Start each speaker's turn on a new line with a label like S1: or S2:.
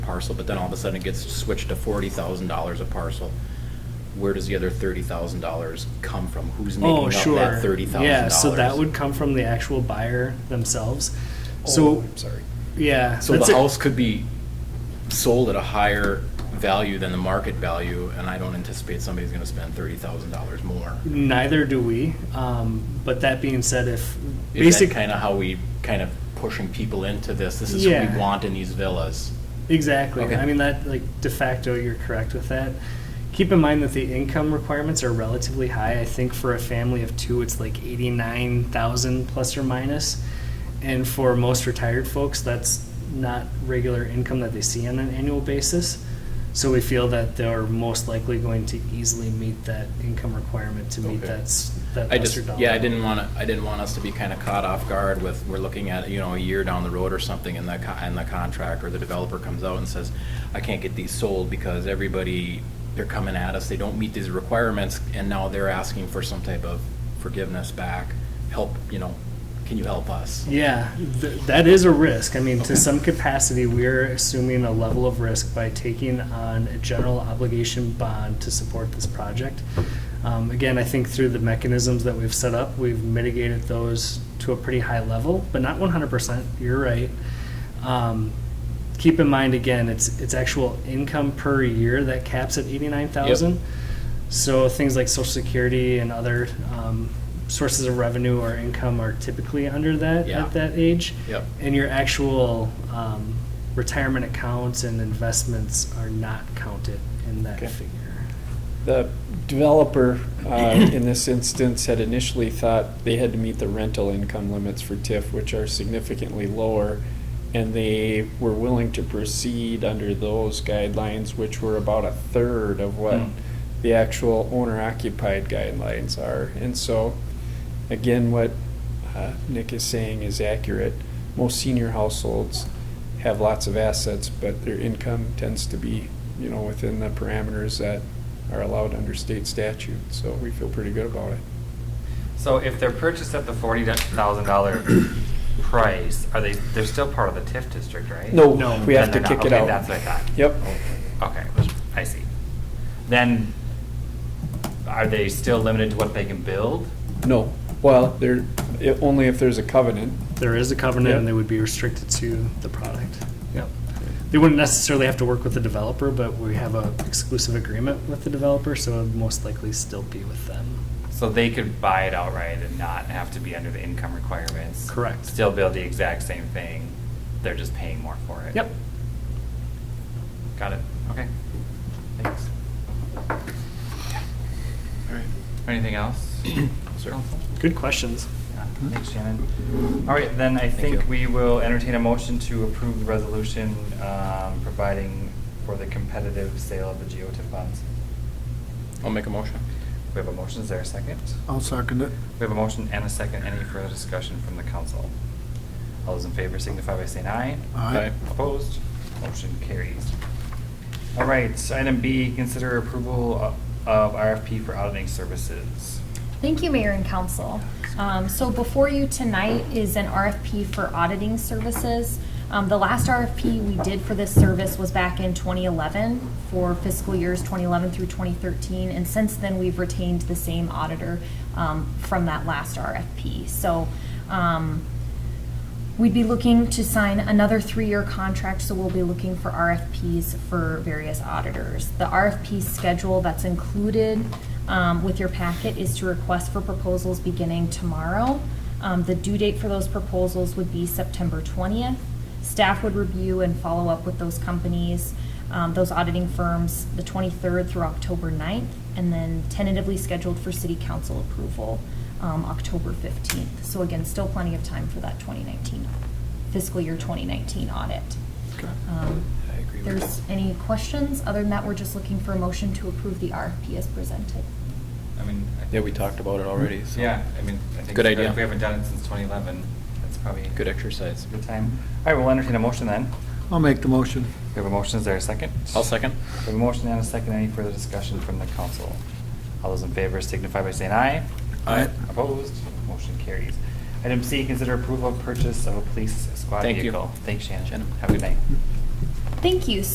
S1: parcel, but then all of a sudden it gets switched to forty thousand dollars a parcel. Where does the other thirty thousand dollars come from? Who's making
S2: Oh,
S1: up
S2: sure.
S1: that thirty thousand dollars?
S2: Yeah, so that would come from the actual buyer themselves.
S1: Oh,
S2: So,
S1: I'm sorry.
S2: yeah.
S1: So
S2: that's
S1: the
S2: it.
S1: house could be sold at a higher value than the market value, and I don't anticipate somebody's gonna spend thirty thousand dollars more.
S2: Neither do we. Um, but that being said, if
S1: Is that
S2: basic,
S1: kind of how we, kind of pushing people into this? This is what
S2: Yeah.
S1: we want in these villas.
S2: exactly.
S1: Okay.
S2: I mean that like de facto, you're correct with that. Keep in mind that the income requirements are relatively high. I think for a family of two, it's like eighty-nine thousand plus or minus, and for most retired folks, that's not regular income that they see on an annual basis. So we feel that they're most likely going to easily meet that income requirement to meet
S1: Okay.
S2: that s- that
S1: I
S2: lesser
S1: just,
S2: dollar.
S1: yeah, I didn't want to, I didn't want us to be kind of caught off guard with, we're looking at, you know, a year down the road or something and the, co- and the contract or the developer comes out and says, I can't get these sold because everybody, they're coming at us, they don't meet these requirements, and now they're asking for some type of forgiveness back, help, you know, can you help us?
S2: Yeah, th- that is a risk. I mean,
S1: Okay.
S2: to some capacity, we're assuming a level of risk by taking on a general obligation bond to support this project. Um, Again, I think through the mechanisms that we've set up, we've mitigated those to a pretty high level, but not 100%. You're right. Um, Keep in mind, again, it's, it's actual income per year that caps at 89,000. So things like social security and other um, sources of revenue or income are typically under that
S1: Yeah.
S2: at that age.
S1: Yep.
S2: And your actual um, retirement accounts and investments are not counted in that
S3: Okay.
S2: figure.
S3: The developer, uh, in this instance, had initially thought they had to meet the rental income limits for TIF, which are significantly lower, and they were willing to proceed under those guidelines, which were about a third of what
S2: Hmm.
S3: the actual owner-occupied guidelines are. And so, again, what uh, Nick is saying is accurate. Most senior households have lots of assets, but their income tends to be, you know, within the parameters that are allowed under state statute, so we feel pretty good about it.
S4: So if they're purchased at the forty thousand dollar price, are they, they're still part of the TIF district, right?
S3: No,
S2: No.
S3: we have to
S4: Then
S3: kick
S4: they're not-
S3: it
S4: okay,
S3: out.
S4: That's what I thought.
S3: Yep.
S4: Okay, I see. Then, are they still limited to what they can build?
S3: No, well, there, i- only if there's a covenant.
S2: There is a covenant and
S3: Yep.
S2: they would be restricted to the product. Yep. They wouldn't necessarily have to work with the developer, but we have a exclusive agreement with the developer, so it would most likely still be with them.
S4: So they could buy it outright and not have to be under the income requirements?
S2: Correct.
S4: Still build the exact same thing, they're just paying more for it?
S2: Yep.
S4: Got it, okay. Thanks.
S1: All right.
S4: Anything else?
S1: Sir.
S4: Council?
S2: Good questions.
S4: Yeah, Thanks, Shannon. All right, then I
S1: Thank
S4: think
S1: you.
S4: we will entertain a motion to approve the resolution um, providing for the competitive sale of the GOTIF bonds.
S1: I'll make a motion.
S4: We have a motion, is there a second?
S5: I'll second it.
S4: We have a motion and a second. Any further discussion from the council? All those in favor signify by saying aye.
S5: Aye.
S4: Opposed? Motion carries. All right, so item B, consider approval of- of RFP for auditing services.
S6: Thank you, Mayor and Council. Um, So before you tonight is an RFP for auditing services. Um, The last RFP we did for this service was back in 2011 for fiscal years 2011 through 2013. And since then, we've retained the same auditor um, from that last RFP. So um, We'd be looking to sign another three-year contract, so we'll be looking for RFPs for various auditors. The RFP schedule that's included um, with your packet is to request for proposals beginning tomorrow. Um, The due date for those proposals would be September 20th. Staff would review and follow up with those companies, um, those auditing firms, the 23rd through October 9th, and then tentatively scheduled for city council approval um, October 15th. So again, still plenty of time for that 2019, fiscal year 2019 audit. Um,
S1: I agree with
S6: There's
S1: you.
S6: any questions? Other than that, we're just looking for a motion to approve the RFP as presented.
S4: I mean. I
S1: Yeah,
S4: think-
S1: we talked about it already, so.
S4: Yeah, I mean, I think.
S1: Good
S4: if
S1: idea.
S4: We haven't done it since 2011. That's probably.
S1: Good exercise.
S4: Good time. All right, we'll entertain a motion then.
S5: I'll make the motion.
S4: We have a motion, is there a second?
S1: I'll second.
S4: We have a motion and a second. Any further discussion from the council? All those in favor signify by saying aye.
S1: Aye.
S4: Opposed? Motion carries. Item C, consider approval of purchase of a police squad
S1: Thank you.
S4: vehicle. Thanks, Shannon.
S1: Shannon.
S4: Have a good night.
S6: Thank you.